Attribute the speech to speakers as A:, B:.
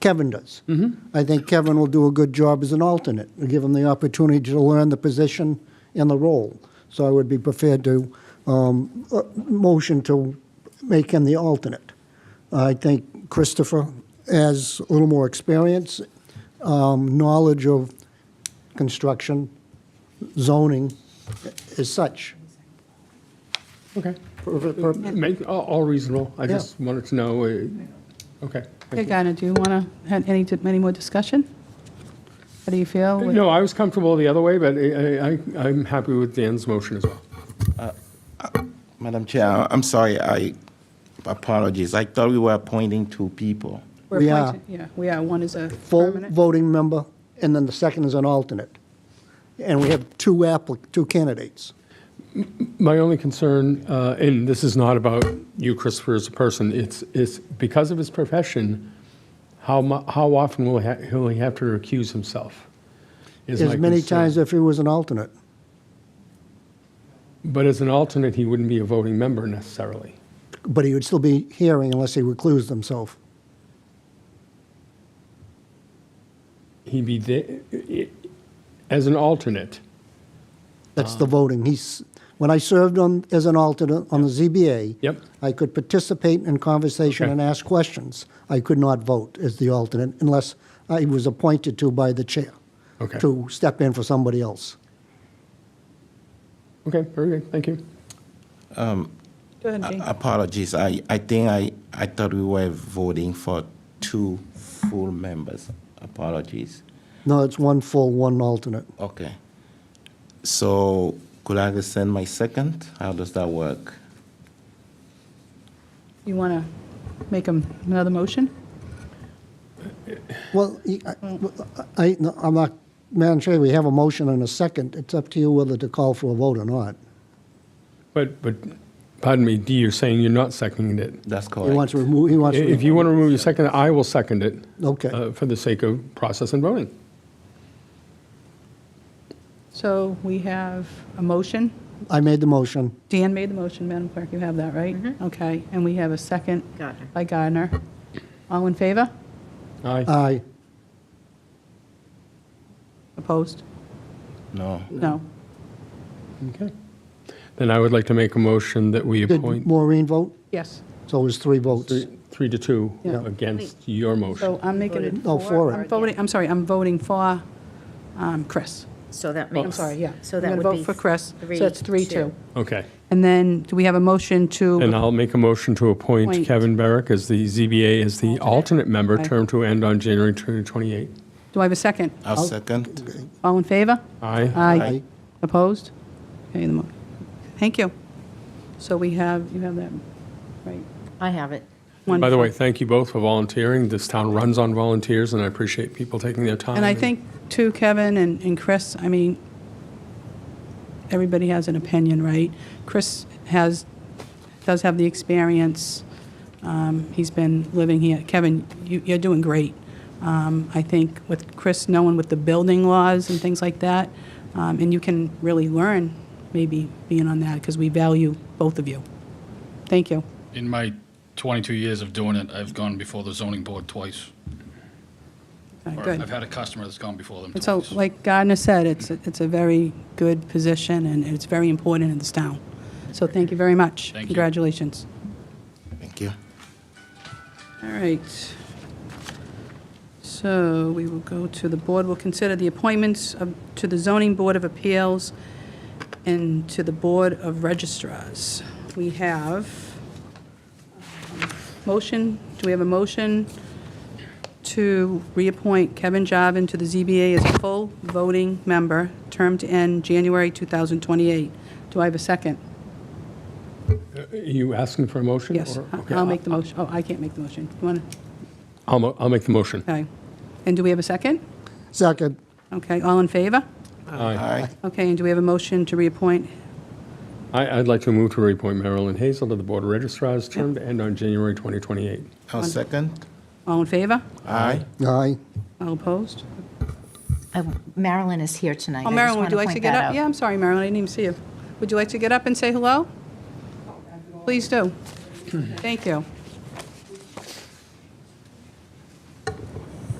A: Kevin does. I think Kevin will do a good job as an alternate, We'll give him the opportunity to learn the position and the role. So I would be prepared to um, uh, motion to make him the alternate. I think Christopher has a little more experience, um, knowledge of construction, zoning as such.
B: Okay.
A: Per- per-
B: Make, all, all reasonable. I just wanted to know, uh, okay.
C: Okay,
B: thank you.
C: Gardner, do you want to have any, any more discussion? How do you feel? with-
B: No, I was comfortable the other way, but I, I, I'm happy with Dan's motion as well.
D: Madam Chair, I- I'm sorry, I apologies. I thought we were appointing two people.
C: We're
A: We are.
C: appointed- Yeah, we are. One is a
A: full
C: permanent.
A: voting member, and then the second is an alternate. And we have two applic, two candidates.
B: My only concern, uh, and this is not about you, Christopher, as a person, it's, it's because of his profession, how mu, how often will he, ha- will he have to recuse himself? is my
A: As many
B: concern.
A: times if he was an alternate.
B: But as an alternate, he wouldn't be a voting member necessarily.
A: But he would still be hearing unless he reclused himself.
B: He'd be the, as an alternate.
A: That's
B: Ah.
A: the voting. He's, when I served on, as an alternate on the ZBA.
B: Yep.
A: I could participate in conversation
B: Okay.
A: and ask questions. I could not vote as the alternate unless I was appointed to by the chair.
B: Okay.
A: To step in for somebody else.
B: Okay, very good, thank you.
C: Go ahead,
E: Uh,
C: Jane.
D: Apologies, I, I think I, I thought we were voting for two full members. Apologies.
A: No, it's one full, one alternate.
D: Okay. So could I rescind my second? How does that work?
C: You want to make 'em another motion?
A: Well, he- I- I, no, I'm not, Madam Chair, we have a motion and a second. It's up to you whether to call for a vote or not.
B: But, but, pardon me, D, you're saying you're not seconding it.
D: That's
A: He wants
D: correct.
A: to remove, he wants to.
B: If you want to remove your second, I will second it.
A: Okay.
B: uh, For the sake of process and voting.
C: So we have a motion.
A: I made the motion.
C: Dan made the motion, Madam Clerk, you have that, right? Okay, and we have a second
E: Mm-hmm. Gardner.
C: by Gardner. All in favor?
B: Aye.
A: Aye.
C: Opposed?
D: No.
C: No.
B: Okay. Then I would like to make a motion that we
A: Did
B: appoint
A: Maureen vote?
C: Yes.
A: So it was three votes.
B: three three to two
C: Yeah.
B: against your motion.
C: So I'm making it.
A: Oh, for
C: I'm
A: it.
C: voting, I'm sorry, I'm voting for um, Chris.
E: So that
C: I'm
E: makes.
C: sorry, yeah.
E: So that would
C: I'm
E: be.
C: going to vote for Chris, so it's three, two.
B: Okay.
C: And then, do we have a motion
B: And
C: to,
B: I'll make a motion to appoint
C: Appoint.
B: Kevin Barrick as the ZBA as the alternate member,
C: Aye.
B: term to end on January 2028.
C: do I have a second?
D: I'll second.
C: All in favor?
B: Aye.
C: Aye.
A: Aye.
C: Opposed? Okay, the mo- Thank you. So we have, you have that, right?
E: I have it.
B: By the
C: Wonderful.
B: way, thank you both for volunteering. This town runs on volunteers, and I appreciate people taking their time.
C: And I think, too, Kevin and and Chris, I mean, everybody has an opinion, right? Chris has, does have the experience. Um, He's been living here. Kevin, you- you're doing great. Um, I think with Chris knowing with the building laws and things like that, um, and you can really learn, maybe, being on that, because we value both of you. Thank you.
F: In my 22 years of doing it, I've gone before the zoning board twice.
C: All right,
F: Or
C: Good.
F: I've had a customer that's gone before them
C: And so,
F: twice.
C: like Gardner said, it's, it's a very good position, and it's very important in this town. So thank you very much.
F: Thank you.
C: Congratulations.
D: Thank you.
C: All right. So we will go to the board, will consider the appointments of- to the Zoning Board of Appeals and to the Board of Registrars. We have um, motion, do we have a motion to reappoint Kevin Jarvin to the ZBA as a full voting member, term to end January 2028? Do I have a second?
B: Are you asking for a motion?
C: Yes,
B: or-
C: I-
B: okay,
C: I'll make the motion. Oh, I can't make the motion. You want to,
B: I'll, mo- I'll make the motion.
C: okay. And do we have a second?
A: Second.
C: Okay, all in favor?
B: Aye.
D: Aye.
C: Okay, and do we have a motion to reappoint?
B: I, I'd like to move to reappoint Marilyn Hazel to the Board of Registrars, term to end on January 2028.
D: I'll second.
C: All in favor?
D: Aye.
A: Aye.
C: All opposed?
E: Uh, Marilyn is here tonight.
C: Oh,
E: I just
C: Marilyn,
E: wanna
C: would you like to
E: point
C: get
E: that
C: up?
E: out.
C: Yeah, I'm sorry, Marilyn, I didn't even see you. Would you like to get up and say hello? Please do. Thank you.